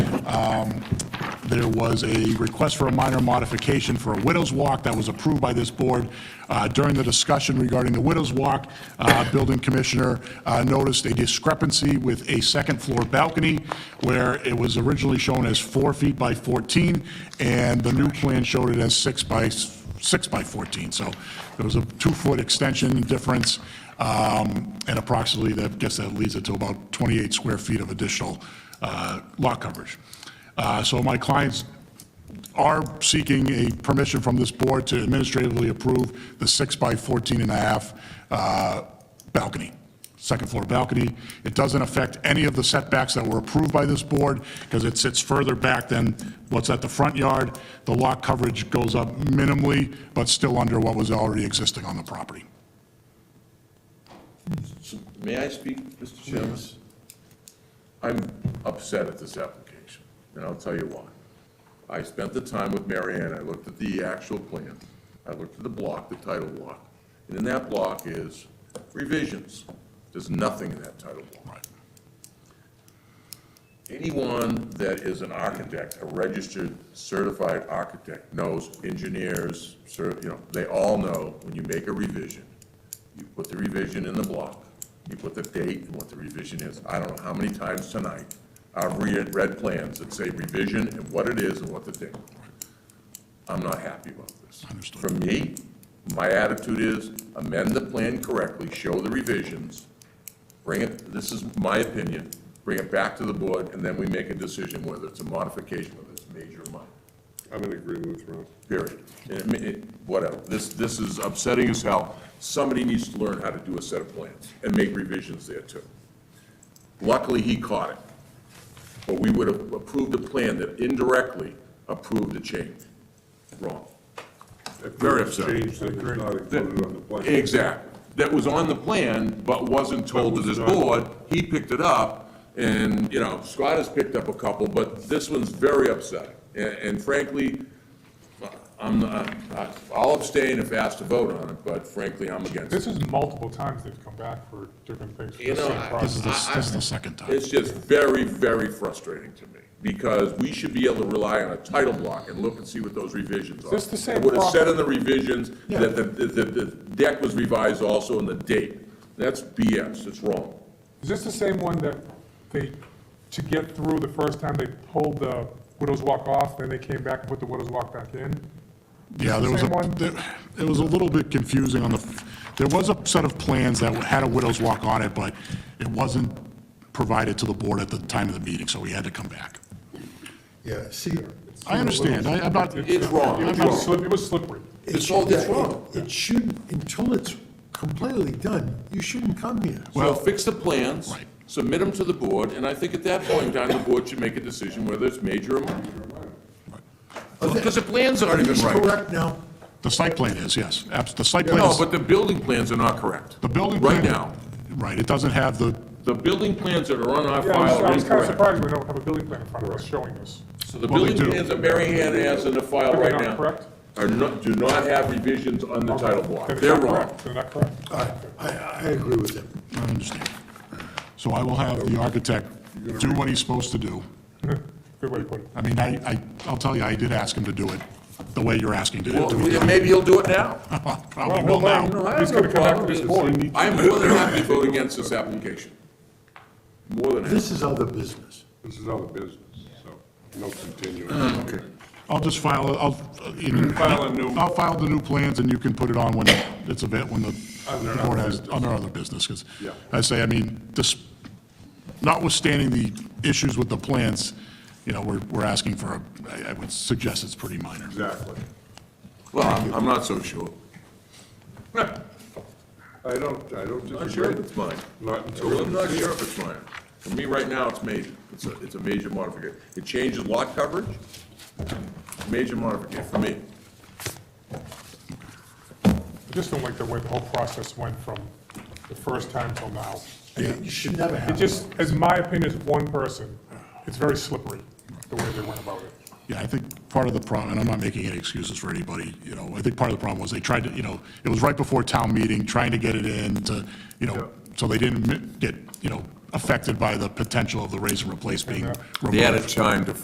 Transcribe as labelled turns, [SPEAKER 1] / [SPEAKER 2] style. [SPEAKER 1] um, there was a request for a minor modification for a widow's walk that was approved by this board. Uh, During the discussion regarding the widow's walk, uh, building commissioner uh, noticed a discrepancy with a second-floor balcony where it was originally shown as four feet by 14, and the new plan showed it as six by, s- six by 14. So there was a two-foot extension difference, um, and approximately, that, guess that leads it to about 28 square feet of additional uh, lot coverage. Uh, So my clients are seeking a permission from this board to administratively approve the six by 14 and a half uh, balcony, second floor balcony. It doesn't affect any of the setbacks that were approved by this board because it sits further back than what's at the front yard. The lot coverage goes up minimally, but still under what was already existing on the property.
[SPEAKER 2] May I speak, Mr. Chairman? I'm upset at this application, and I'll tell you why. I spent the time with Mary Ann, I looked at the actual plan, I looked at the block, the title block, and in that block is revisions. There's nothing in that title block. Anyone that is an architect, a registered certified architect, knows engineers, cer- you know, they all know when you make a revision, you put the revision in the block, you put the date and what the revision is. I don't know how many times tonight I've read, read plans that say revision and what it is and what the date. I'm not happy about this.
[SPEAKER 1] Understood.
[SPEAKER 2] For me, my attitude is amend the plan correctly, show the revisions, bring it, this is my opinion, bring it back to the board, and then we make a decision whether it's a modification, whether it's major or minor,
[SPEAKER 3] I'm gonna agree with Ron.
[SPEAKER 2] period. And it may- it- Whatever, this, this is upsetting as hell. Somebody needs to learn how to do a set of plans and make revisions there too. Luckily, he caught it, but we would have approved a plan that indirectly approved a change. Wrong. Very upsetting.
[SPEAKER 3] Change that was not included on the plan.
[SPEAKER 2] Exactly. That was on the plan, but wasn't told to this board. He picked it up, and, you know, Scott has picked up a couple, but this one's very upsetting. A- And frankly, I'm, not- I- I'll abstain if asked to vote on it, but frankly, I'm against it.
[SPEAKER 4] This is multiple times they've come back for different things for
[SPEAKER 2] You
[SPEAKER 4] the
[SPEAKER 2] know,
[SPEAKER 4] same
[SPEAKER 2] I-
[SPEAKER 1] This is
[SPEAKER 4] process.
[SPEAKER 1] the, this is the second time.
[SPEAKER 2] It's just very, very frustrating to me, because we should be able to rely on a title block and look and see what those revisions are.
[SPEAKER 4] Is this the same
[SPEAKER 2] It would have said
[SPEAKER 4] property?
[SPEAKER 2] in the revisions that the, the, the deck was revised also in the date. That's BS, it's wrong.
[SPEAKER 4] Is this the same one that they, to get through the first time, they pulled the widow's walk off, then they came back and put the widow's walk back in?
[SPEAKER 1] Yeah, there was a,
[SPEAKER 4] Same one?
[SPEAKER 1] there- it was a little bit confusing on the, there was a set of plans that had a widow's walk on it, but it wasn't provided to the board at the time of the meeting, so we had to come back.
[SPEAKER 5] Yeah, see.
[SPEAKER 1] I understand, I, I'm not,
[SPEAKER 2] It's wrong.
[SPEAKER 4] It was slip- it was slippery.
[SPEAKER 2] It's
[SPEAKER 5] it-
[SPEAKER 2] all- it's
[SPEAKER 5] yeah,
[SPEAKER 2] wrong.
[SPEAKER 5] It it shouldn't, until it's completely done, you shouldn't come here.
[SPEAKER 2] So fix the plans,
[SPEAKER 1] Right.
[SPEAKER 2] submit them to the board, and I think at that point in time, the board should make a decision whether it's major or minor. Because the plans aren't even
[SPEAKER 5] It's
[SPEAKER 2] right.
[SPEAKER 5] correct now.
[SPEAKER 1] the site plan is, yes, abs, the site plan
[SPEAKER 2] No,
[SPEAKER 1] is,
[SPEAKER 2] but the building plans are not correct.
[SPEAKER 1] the building.
[SPEAKER 2] Right
[SPEAKER 1] plan-
[SPEAKER 2] now,
[SPEAKER 1] Right, it doesn't have the,
[SPEAKER 2] the building plans that are on our
[SPEAKER 4] Yeah, I was-
[SPEAKER 2] file
[SPEAKER 4] I
[SPEAKER 2] are
[SPEAKER 4] was kind of
[SPEAKER 2] incorrect.
[SPEAKER 4] surprised we don't have a building plan in front of us showing this.
[SPEAKER 2] So the
[SPEAKER 1] Well, they
[SPEAKER 2] building
[SPEAKER 1] do.
[SPEAKER 2] plans that Mary Ann has in the file
[SPEAKER 4] They're
[SPEAKER 2] right
[SPEAKER 4] not
[SPEAKER 2] now
[SPEAKER 4] correct?
[SPEAKER 2] are not, do not have revisions on the title block.
[SPEAKER 4] They're not
[SPEAKER 2] They're wrong.
[SPEAKER 4] correct. They're not correct.
[SPEAKER 5] I, I I agree with him.
[SPEAKER 1] I understand. So I will have the architect do what he's supposed to do.
[SPEAKER 4] Good way to put it.
[SPEAKER 1] I mean, I, I, I'll tell you, I did ask him to do it, the way you're asking to
[SPEAKER 2] Well,
[SPEAKER 1] do it.
[SPEAKER 2] maybe he'll do it now.
[SPEAKER 1] Probably will now.
[SPEAKER 4] He's gonna come back to this board.
[SPEAKER 2] I'm more than happy to vote against this application. More than happy.
[SPEAKER 5] This is other business.
[SPEAKER 3] This is other business, so no continuing.
[SPEAKER 1] I'll just file, I'll, uh, you know,
[SPEAKER 3] File a new-
[SPEAKER 1] I'll file the new plans, and you can put it on when it's a bit, when the the board has, under other business, because
[SPEAKER 3] Yeah.
[SPEAKER 1] I say, I mean, this, notwithstanding the issues with the plants, you know, we're, we're asking for a, I- I would suggest it's pretty minor.
[SPEAKER 3] Exactly.
[SPEAKER 2] Well, I'm- I'm not so sure.
[SPEAKER 3] I don't, I don't
[SPEAKER 2] Not sure if
[SPEAKER 3] disagree.
[SPEAKER 2] it's mine.
[SPEAKER 3] Not
[SPEAKER 2] I'm
[SPEAKER 3] until.
[SPEAKER 2] really not sure if it's mine. For me, right now, it's major. It's a, it's a major modification. It changes lot coverage, major modification for me.
[SPEAKER 4] I just don't like the way the whole process went from the first time till now.
[SPEAKER 5] You should never
[SPEAKER 4] It
[SPEAKER 5] have.
[SPEAKER 4] just, as my opinion as one person, it's very slippery, the way they went about it.
[SPEAKER 1] Yeah, I think part of the problem, and I'm not making any excuses for anybody, you know, I think part of the problem was they tried to, you know, it was right before town meeting, trying to get it in to, you know, so they didn't mi- get, you know, affected by the potential of the raise and replace being removed.
[SPEAKER 2] They added time to